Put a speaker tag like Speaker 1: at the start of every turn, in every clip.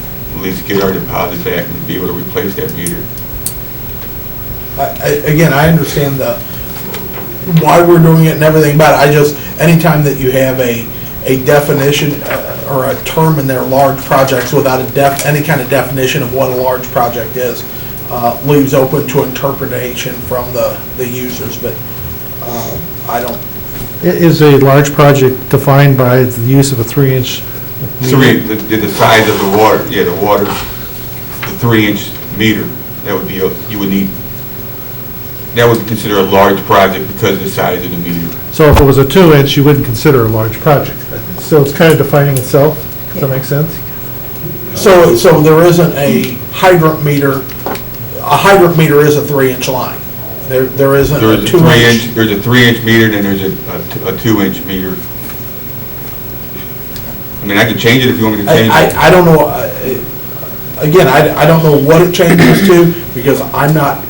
Speaker 1: at least get our deposit back and be able to replace that meter.
Speaker 2: I- I- Again, I understand the, why we're doing it and everything, but I just, anytime that you have a, a definition uh, or a term in there, large projects, without a def, any kind of definition of what a large project is, uh, leaves open to interpretation from the, the users, but um, I don't,
Speaker 3: I- Is a large project defined by the use of a three-inch?
Speaker 1: Three, the, the size of the water, yeah, the water, the three-inch meter, that would be, a you would need, that would be considered a large project because of the size of the meter.
Speaker 3: So if it was a two-inch, you wouldn't consider a large project. So it's kind of defining itself, does that make sense?
Speaker 2: so, so there isn't a hydrant meter, a hydrant meter is a three-inch line. There, there isn't
Speaker 1: There's
Speaker 2: a
Speaker 1: a
Speaker 2: two-inch.
Speaker 1: three-inch, there's a three-inch meter, then there's a, a t- a two-inch meter. I mean, I can change it if you want me to
Speaker 2: I,
Speaker 1: change it.
Speaker 2: I- I don't know, uh, again, I, I don't know what it changes to, because I'm not,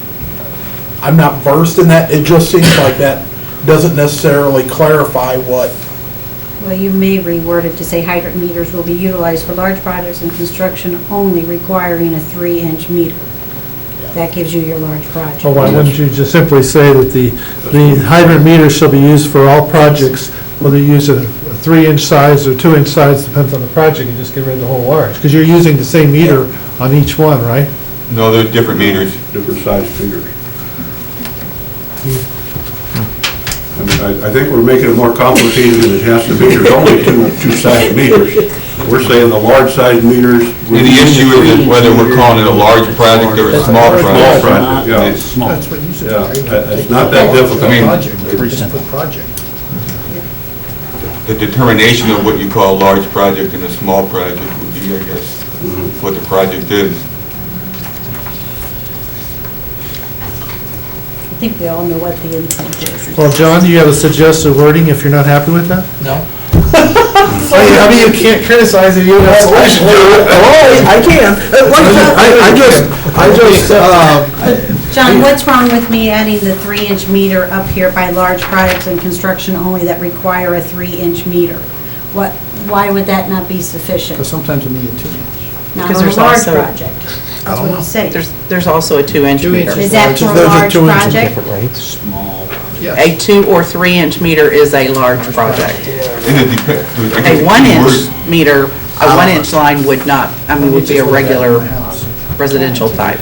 Speaker 2: I'm not versed in that, it just seems like that doesn't necessarily clarify what,
Speaker 4: Well, you may reword it to say hydrant meters will be utilized for large projects and construction only requiring a three-inch meter. That gives you your large project.
Speaker 3: Or why wouldn't you just simply say that the, the hydrant meter shall be used for all projects, whether you use a a three-inch size or two-inch size, depends on the project, and just get rid of the whole large? Because you're using the same meter on each one, right?
Speaker 1: No, there's different meters.
Speaker 5: different size figures. I mean, I, I think we're making it more complicated than it has to be. There's only two, two size meters. We're saying the large size meters.
Speaker 1: The issue is whether we're calling it a large project or a small
Speaker 5: Small
Speaker 1: project.
Speaker 5: project, yeah.
Speaker 1: It's-
Speaker 6: That's
Speaker 7: what you said.
Speaker 5: Yeah, I- it's not that difficult.
Speaker 1: I mean-
Speaker 7: Just put project.
Speaker 1: The determination of what you call a large project and a small project would be, I guess, what the project is.
Speaker 4: I think we all know what the intent is.
Speaker 3: Well, John, do you have a suggested wording if you're not happy with that?
Speaker 2: no?
Speaker 3: I mean, you can't criticize it, you have
Speaker 2: Oh, I can,
Speaker 3: Uh,
Speaker 2: I just, I just, uh,
Speaker 4: John, what's wrong with me adding the three-inch meter up here by large projects and construction only that require a three-inch meter? What, why would that not be
Speaker 7: Because
Speaker 4: sufficient?
Speaker 7: sometimes we need a two-inch.
Speaker 4: Not
Speaker 6: Because
Speaker 4: on a
Speaker 6: there's
Speaker 4: large
Speaker 6: also-
Speaker 4: project. That's what he's saying.
Speaker 6: There's, there's also a two-inch meter.
Speaker 4: Is that for a
Speaker 2: Those are
Speaker 4: large
Speaker 2: two-inch and
Speaker 4: project?
Speaker 7: Small.
Speaker 6: A two or three-inch meter is a large project.
Speaker 1: And it depends. I guess
Speaker 6: A
Speaker 1: the word-
Speaker 6: one-inch meter, a one-inch line would not, I mean, would be a regular residential type.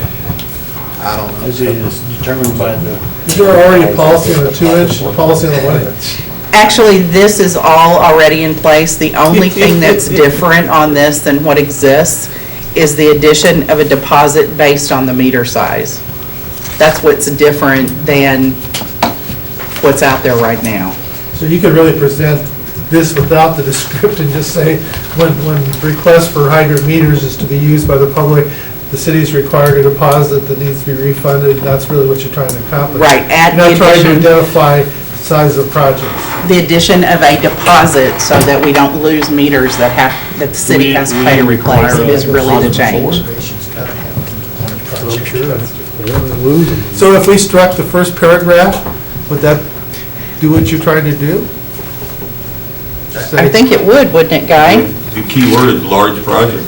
Speaker 7: I don't know.
Speaker 8: Is it is determined by the,
Speaker 3: Is there already a policy on the two-inch, a policy on the one-inch?
Speaker 6: Actually, this is all already in place. The only thing that's different on this than what exists is the addition of a deposit based on the meter size. That's what's different than what's out there right now.
Speaker 3: So you could really present this without the descript and just say, when, when request for hydrant meters is to be used by the public, the city's required a deposit that needs to be refunded, that's really what you're trying to accomplish.
Speaker 6: Right, add
Speaker 3: You're
Speaker 6: the
Speaker 3: not trying to
Speaker 6: addition-
Speaker 3: identify size of projects.
Speaker 6: The addition of a deposit so that we don't lose meters that have, that the city has to pay to replace is really the change.
Speaker 7: Reservations gotta have on a project.
Speaker 3: So if we struck the first paragraph, would that do what you're trying to do?
Speaker 6: I think it would, wouldn't it, Guy?
Speaker 1: The key word is large project.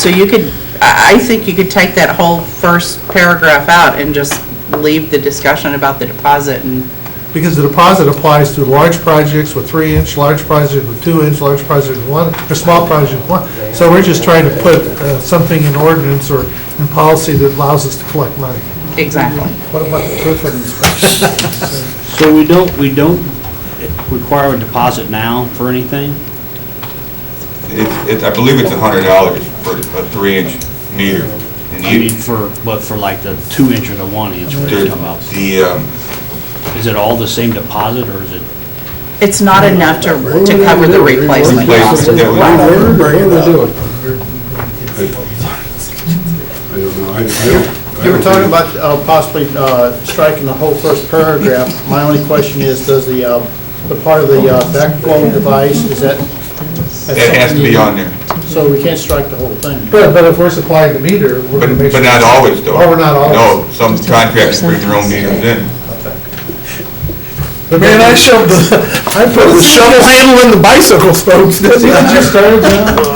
Speaker 6: So you could, I, I think you could take that whole first paragraph out and just leave the discussion about the deposit and
Speaker 3: Because the deposit applies to large projects with three-inch, large project with two-inch, large project with one, or small project with one. So we're just trying to put uh, something in ordinance or in policy that allows us to collect money.
Speaker 6: Exactly.
Speaker 3: What about the proof of inspection?
Speaker 8: so we don't, we don't require a deposit now for anything?
Speaker 1: It's, it's, I believe it's a hundred dollars for a three-inch meter. And
Speaker 8: I mean,
Speaker 1: the,
Speaker 8: for, but for like the two inch or the one inch, what you're talking about?
Speaker 1: the- the, um,
Speaker 8: Is it all the same deposit or is it?
Speaker 6: It's not enough to, to cover the replacement cost.
Speaker 1: Replacement, yeah.
Speaker 5: I don't know, I, I don't.
Speaker 7: You were talking about uh, possibly uh, striking the whole first paragraph. My only question is, does the, uh, the part of the uh, backflow device, is that?
Speaker 1: that has to be on there.
Speaker 7: So we can't strike the whole thing?
Speaker 3: But, but if we're supplying the meter, we're
Speaker 1: But,
Speaker 3: gonna make sure.
Speaker 1: but not always though.
Speaker 3: Oh, we're not always.
Speaker 1: No, some contractors bring their own meters in.
Speaker 3: But man, I shoved the, I put the shovel handle in the bicycle spokes, didn't I?